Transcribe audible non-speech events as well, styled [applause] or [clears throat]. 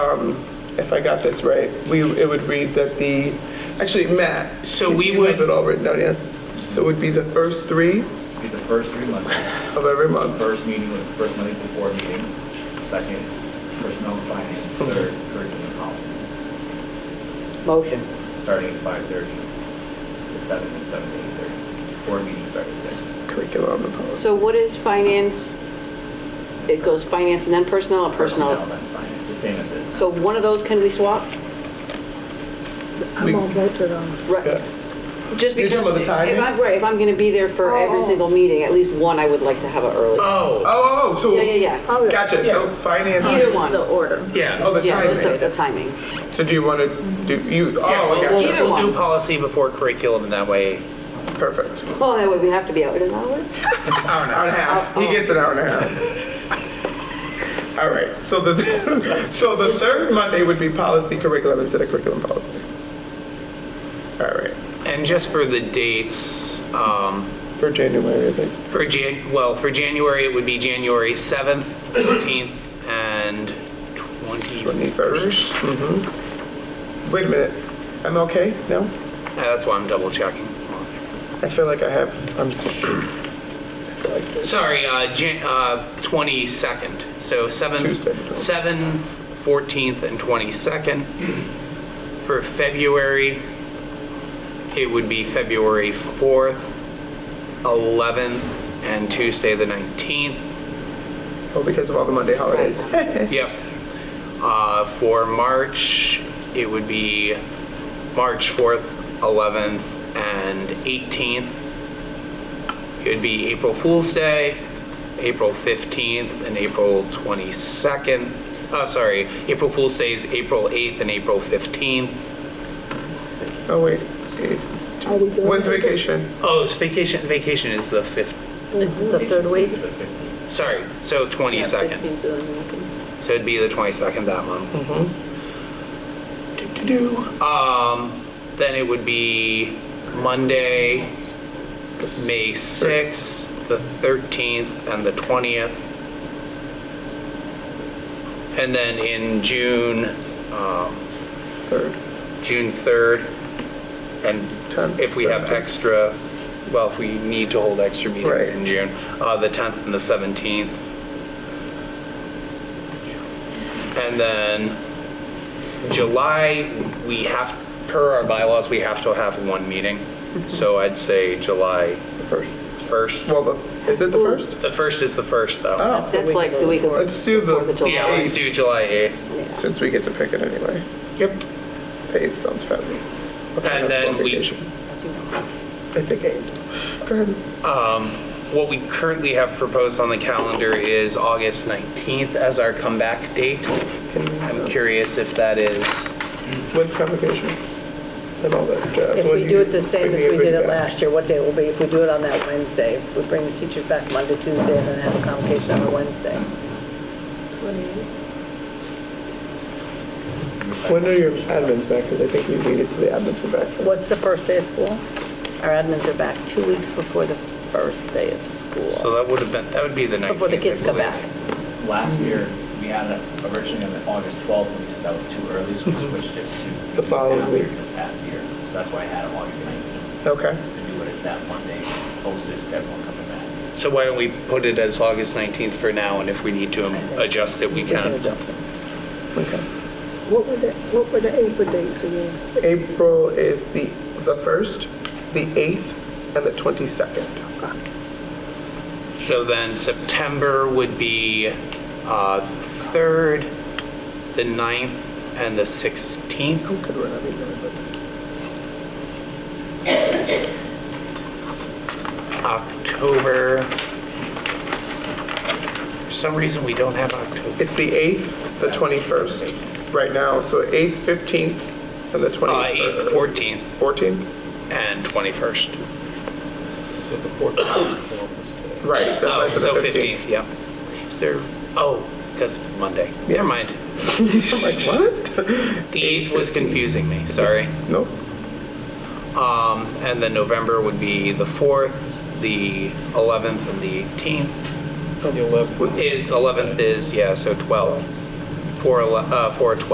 um, if I got this right, we, it would read that the, actually, Matt. So we you have would- it all written down, yes. So it would be the first three Be the first three Mondays, of every month. first meeting, with first Monday before meeting, second, personnel and finance, third, curriculum and policy, Motion. starting at 5:30 to 7 and 7 to 8:30. Four meetings starting at 6. Curriculum and policy. So what is finance? It goes finance and then personnel or Personnel personnel? and finance, the same as this. So one of those can we swap? We- I'm on both of those. Right. Yeah. Just You're because, talking about the if timing? I'm, right, if I'm going to be there for every Oh. single meeting, at least one I would like to have it early. Oh, Oh, oh, oh, so. Yeah, yeah, yeah. Oh, yeah. Gotcha, so Yes. finance. Either one. The order. Oh, yeah. the Yeah, just the- timing. the timing. So do you want to do, you, oh, Yeah, I we'll- gotcha. Either we'll, we'll one. do policy before curriculum and that way. Perfect. Well, that way we have to be out in an I hour. don't Hour know. and a half. He gets an hour and a half. All right, so the, [laughs] so the third Monday would be policy curriculum instead of curriculum policy. All right, And just for the dates, um, for January at least. for Jan, well, for January, it would be January 7th, 14th, and 21st. 21st. Mhm. Wait a minute, I'm okay? No? Yeah, That's why I'm double checking. I feel like I have, I'm, s- [clears throat] I feel like this. Sorry, uh, Jan, uh, 22nd. So 7, Tuesday. 7th, 14th, and 22nd. For February, it would be February 4th, 11th, and Tuesday the 19th. oh, because of all the Monday holidays. [laughs] Yep. Uh, for March, it would be March 4th, 11th, and 18th. It would be April Fool's Day, April 15th, and April 22nd. Uh, sorry, April Fool's Day is April 8th and April 15th. Oh, wait. Is- Are we doing When's it? vacation? Oh, it's vacation. Vacation is the 5th. It's the third week. The 15th. Sorry, so 22nd. So it'd be the 22nd that month. Do-do-do. Um, then it would be Monday, May 6th, the 13th, and the 20th. And then in June, um, Third. June 3rd, and Tenth, if we have seventeenth. extra, well, if we need to hold extra meetings Right. in June, uh, the 10th and the 17th. And then July, we have, per our bylaws, we have to have one meeting. Mm-hmm. So I'd say July The first. 1st. Well, the, is it the first? The 1st is the 1st, though. Oh. That's like the week of. Let's do the- Fourth of July. Yeah, let's do July 8th. Yeah. Since we get to pick it anyway. Yep. Eight sounds fabulous. I'll try not to And then go on we- vacation. I think eight. Go ahead. What we currently have proposed on the calendar is August 19th as our comeback date. I'm Can, curious if that is, when's convocation? And all that jazz. If When we do it the when same do as you we bring did it back? last year, what day it will be, if we do it on that Wednesday, if we bring the teachers back Monday, Tuesday, and then have a convocation on a Wednesday. When are your admins back? Because I think we needed to the admins were back. for- What's the first day of school? Our admins are back two weeks before the first day of so school, that would have been, that would be the 19th. before the kids I come believe. back. Last year, we had it originally on August 12th, and we said that was too early, so we switched it to. Mm-hmm. The following after week. This past year, so that's why I had it August 19th, Okay. to do it as that Monday, closest everyone coming back. So why don't we put it as August 19th for now, and if we need to um, adjust it, we We can can. adjust it. Okay. What were the, what were the April dates again? April is the, the first, the eighth, and the twenty-second. So then September would be uh, 3rd, the 9th, and the 16th. Good one, I didn't know that. October, for some reason, we don't have October. It's the eighth, the twenty-first, right now, so eighth, fifteenth, and the Uh, twenty. 8th, 14th, Fourteenth? and 21st. Right. that's why I Oh, said the so 15th, yeah. Is there, oh, that's Monday. Never Yes. mind. [laughs] I'm like, what? [laughs] The 8th was confusing me, sorry. Nope. Um, and then November would be the 4th, the 11th, and the 18th. Would- Is, 11th is, yeah, so 12. 4, ele- uh, 4, 12.